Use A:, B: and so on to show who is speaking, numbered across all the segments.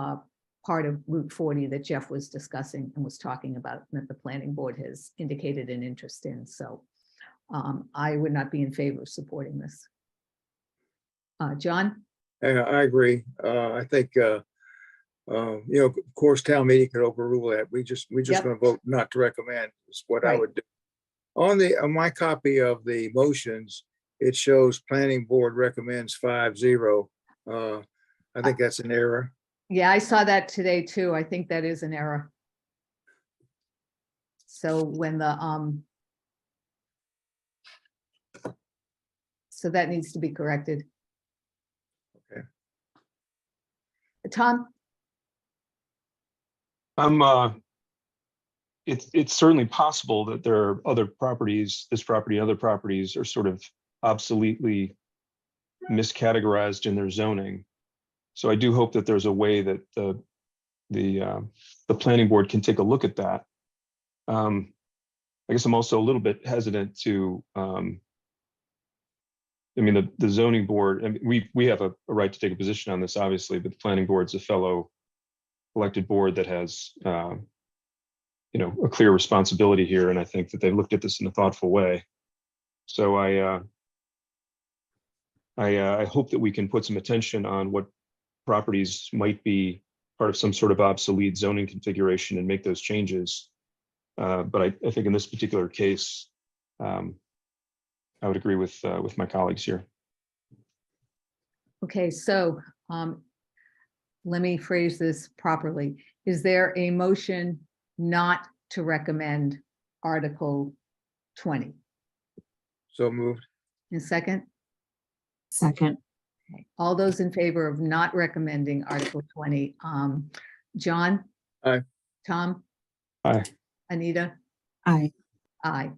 A: uh, part of Route 40 that Jeff was discussing and was talking about, and that the planning board has indicated an interest in, so um, I would not be in favor of supporting this. Uh, John,
B: I, I agree. Uh, I think, uh, uh, you know, of course, town meeting could overrule that. We just, we
A: Yep.
B: just gonna vote not to recommend is what I
A: Right.
B: would do. On the, on my copy of the motions, it shows planning board recommends five zero. Uh, I think that's an error.
A: yeah, I saw that today too. I think that is an error. So when the, um, so that needs to be corrected.
B: Okay.
A: Tom,
C: I'm, uh, it's, it's certainly possible that there are other properties, this property, other properties are sort of obsoletely miscategorized in their zoning. So I do hope that there's a way that the, the, um, the planning board can take a look at that. Um, I guess I'm also a little bit hesitant to, um, I mean, the, the zoning board, and we, we have a, a right to take a position on this, obviously, but the planning board's a fellow elected board that has, um, you know, a clear responsibility here, and I think that they've looked at this in a thoughtful way. So I, uh, I, uh, I hope that we can put some attention on what properties might be part of some sort of obsolete zoning configuration and make those changes. Uh, but I, I think in this particular case, um, I would agree with, uh, with my colleagues here.
A: Okay, so um, let me phrase this properly. Is there a motion not to recommend Article 20?
B: So moved.
A: And second,
D: Second,
A: Okay, all those in favor of not recommending Article 20? um, John?
B: Aye.
A: Tom?
C: Aye.
A: Anita?
D: aye,
A: Aye.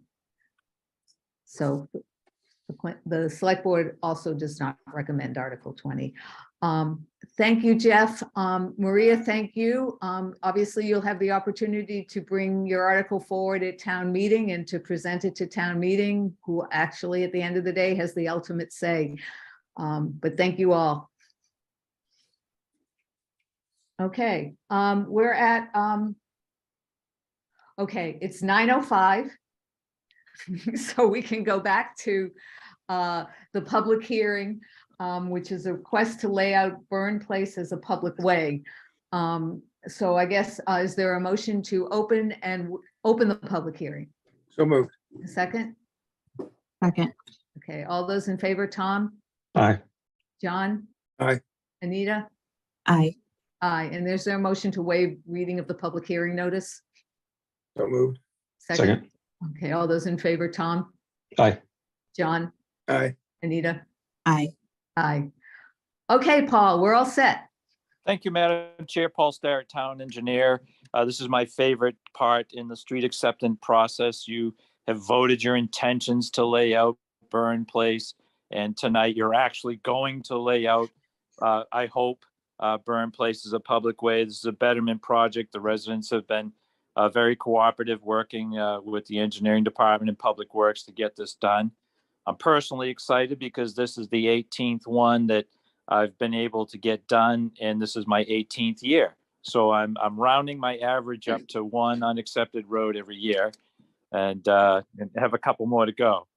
A: So the que- the select board also does not recommend Article 20. Um, Thank you, Jeff. Um, Maria, thank you. Um, Obviously, you'll have the opportunity to bring your article forward at town meeting and to present it to town meeting, who actually, at the end of the day, has the ultimate say. Um, But thank you all. Okay, um, we're at um, Okay, it's nine oh five. So we can go back to uh, the public hearing, um, which is a request to lay out Burn Place as a public way. Um, So I guess, uh, is there a motion to open and w- open the public hearing?
B: So moved.
A: A Second?
D: second,
A: Okay, all those in favor, Tom,
C: Aye.
A: John?
B: Aye.
A: Anita?
D: aye,
A: Aye, and there's their motion to waive reading of the public hearing notice?
B: So moved.
C: Second.
A: Okay, all those in favor, Tom?
C: Aye.
A: John?
B: Aye.
A: Anita?
D: aye.
A: Aye. Okay, Paul, we're all set.
E: Thank you, Madam Chair. Paul Starrett, Town Engineer. Uh, This is my favorite part in the street acceptance process. You have voted your intentions to lay out Burn Place, and tonight you're actually going to lay out, uh, I hope, uh, Burn Place is a public way. This is a betterment project. The residents have been uh, very cooperative, working uh, with the Engineering Department and Public Works to get this done. I'm personally excited because this is the 18th one that I've been able to get done, and this is my 18th year. So I'm I'm rounding my average up to one unaccepted road every year, and uh, and have a couple more to go.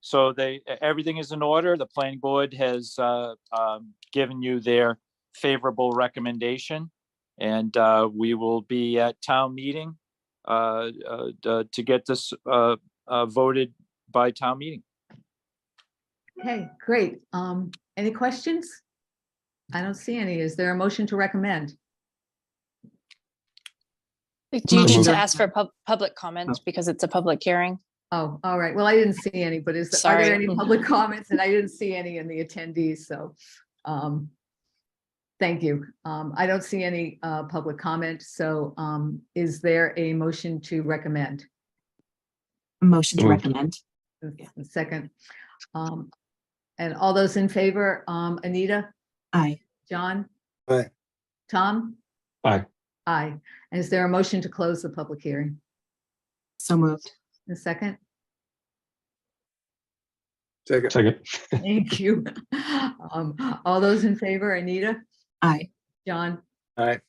E: So they e, everything is in order. The planning board has uh, um, given you their favorable recommendation, and uh, we will be at town meeting uh, uh, d- to get this uh, uh, voted by town meeting.
A: Okay, great. Um, any questions? I don't see any. Is there a motion to recommend?
F: Like, Do you
C: Move
F: need to
A: it.
F: ask for pub- public comment because it's a public hearing?
A: Oh, all right. Well, I didn't see any, but is, are there
F: Sorry.
A: any public comments? And I didn't see any in the attendees, so. um, Thank you. Um, I don't see any uh, public comment, so um, is there a motion to recommend?
D: Motion to
C: Moved.
D: recommend,
A: Second. Um, And all those in favor, um, Anita?
D: aye,
A: John?
B: Aye.
A: Tom?
C: Aye.
A: Aye. And Is there a motion to close the public hearing?
D: so moved,
A: A second?
B: Second.
C: Second.
A: Thank you. Um, All those in favor, Anita,
D: aye,
A: John,
B: Aye.